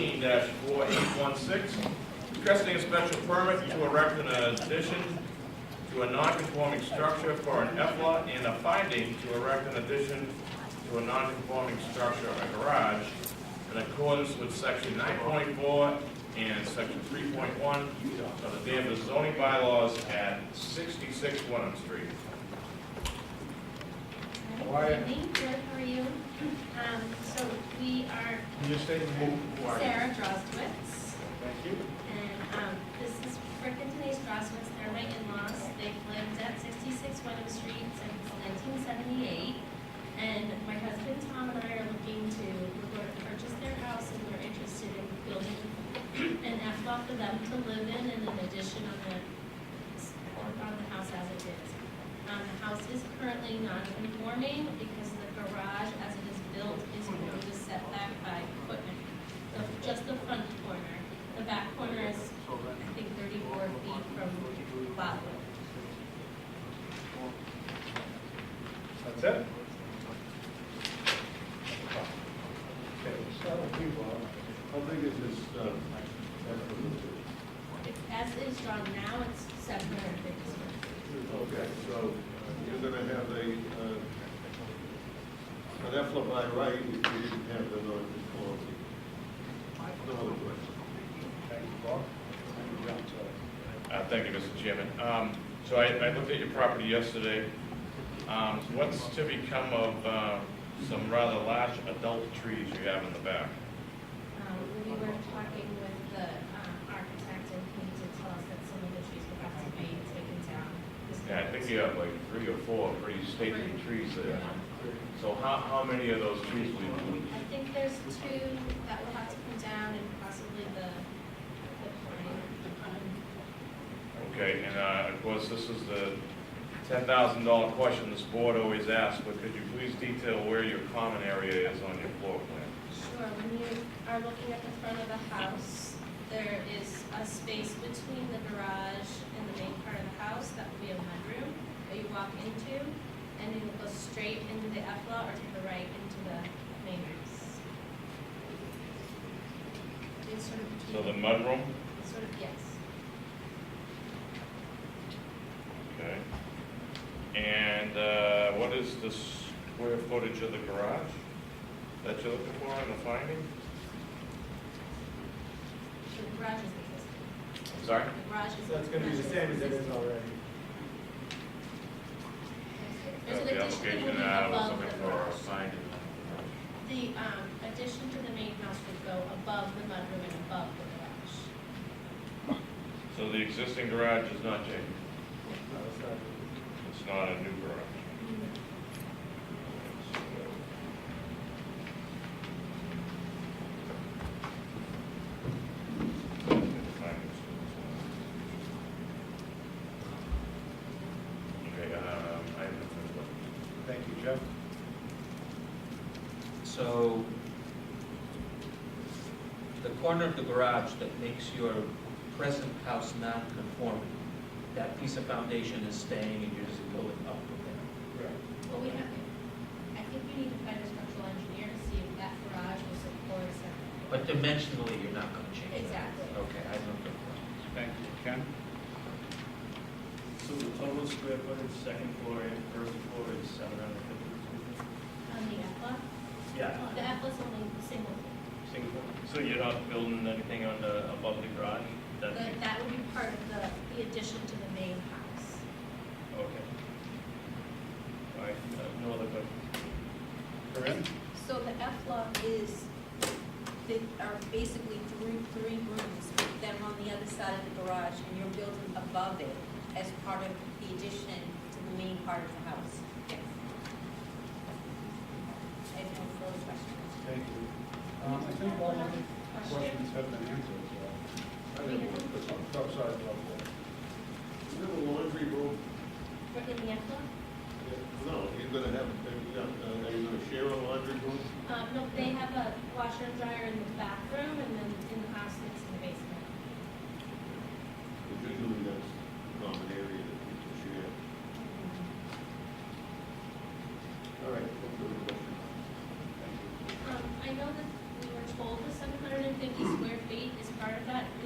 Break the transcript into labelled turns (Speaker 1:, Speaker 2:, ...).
Speaker 1: four eight one six, requesting a special permit to erect an addition to a non-conforming structure for an EFLA and a finding to erect an addition to a non-conforming structure, a garage, in accordance with section nine point four and section three point one of the Danvers zoning bylaws at sixty-six Wenham Street.
Speaker 2: How
Speaker 3: Why-
Speaker 2: are you? Good, how are you? Um, so we are
Speaker 3: Can you state who, who are you?
Speaker 2: Sarah Drostwitz,
Speaker 3: Thank you.
Speaker 2: and, um, this is Rick and Denise Drostwitz, they're my in-laws. They've lived at sixty-six Wenham Street since nineteen seventy-eight. And my husband Tom and I are looking to, we're going to purchase their house and we're interested in building an F lot for them to live in and an addition on the, on the house as it is. Um, the house is currently non-conforming because the garage as it is built is going to set back by equipment. The- Just the front corner. The back corner is, I think, thirty-four feet from lot line.
Speaker 3: That's it? Okay, we'll start with you, Bob.
Speaker 4: How big is this, uh,
Speaker 2: If- As it is drawn now, it's seven hundred and fifty square feet.
Speaker 4: okay, so uh, you're gonna have a, uh, an effluent by right if you didn't have the non-conformity. No other question.
Speaker 3: Thank you, Bob. Thank you, John, sorry.
Speaker 1: Uh, Thank you, Mr. Chairman. Um, So I I looked at your property yesterday. Um, What's to become of uh, some rather large adult trees you have in the back?
Speaker 2: Um, we were talking with the, um, architect and he did tell us that some of the trees would have to be taken down.
Speaker 1: Yeah, I think you have like three or four pretty stately trees there.
Speaker 3: Uh,
Speaker 1: So how how many of those trees will you lose?
Speaker 2: I think there's two that will have to come down and possibly the, the pine. um,
Speaker 1: Okay, and uh, of course, this is the $10,000 question this board always asks, but could you please detail where your common area is on your floor plan?
Speaker 2: Sure, when you are looking at the front of the house, there is a space between the garage and the main part of the house that would be a mudroom that you walk into, and you will go straight into the EFLA or to the right into the main house. It's sort of
Speaker 1: So the
Speaker 2: between,
Speaker 1: mudroom?
Speaker 2: sort of, yes.
Speaker 1: Okay. And uh, what is the square footage of the garage that you're looking for in the finding?
Speaker 2: The garage is existing.
Speaker 1: I'm sorry?
Speaker 2: The garage is.
Speaker 5: So it's gonna be the same as it is already.
Speaker 2: There's
Speaker 1: Uh,
Speaker 2: an
Speaker 1: The
Speaker 2: addition that
Speaker 1: application,
Speaker 2: will be
Speaker 1: uh, was
Speaker 2: above
Speaker 1: looking
Speaker 2: the
Speaker 1: for a
Speaker 2: garage.
Speaker 1: finding.
Speaker 2: The um, addition to the main house would go above the mudroom and above the garage.
Speaker 1: So the existing garage is not changing?
Speaker 5: No, it's not.
Speaker 1: It's not a new garage? um, Okay, um, I have nothing.
Speaker 3: Thank you, Jeff.
Speaker 6: So the corner of the garage that makes your present house non-conforming, that piece of foundation is staying and you're just going up with it.
Speaker 3: Right.
Speaker 2: Well, we have, I think we need to find a structural engineer to see if that garage will support a setback.
Speaker 6: But dimensionally, you're not going to change that.
Speaker 2: Exactly.
Speaker 6: Okay, I know. the-
Speaker 3: Thank you, Ken.
Speaker 7: So the total square footage, second floor and first floor is seven hundred fifty?
Speaker 2: On the EFLA,
Speaker 7: Yeah.
Speaker 2: the EFLA's only single,
Speaker 7: Single. So you're not building anything on the, above the garage? That's,
Speaker 2: but that would be part of the, the addition to the main house.
Speaker 7: okay. All right, no- no other questions?
Speaker 3: Corinne?
Speaker 8: So the F-Log is, they are basically three, three rooms, with them on the other side of the garage, and you're building above it as part of the addition to the main part of the house. Yes. I have no further questions.
Speaker 3: Thank you. Um, I think all the questions have been answered,
Speaker 4: I didn't want to put
Speaker 3: so.
Speaker 4: some-
Speaker 3: I'm sorry about that.
Speaker 4: Is there a laundry room?
Speaker 2: But in the EFLA,
Speaker 4: No, you're gonna have, uh, you're not- uh, are you gonna share a laundry room?
Speaker 2: um, no, they have a washer and dryer in the bathroom and then Um,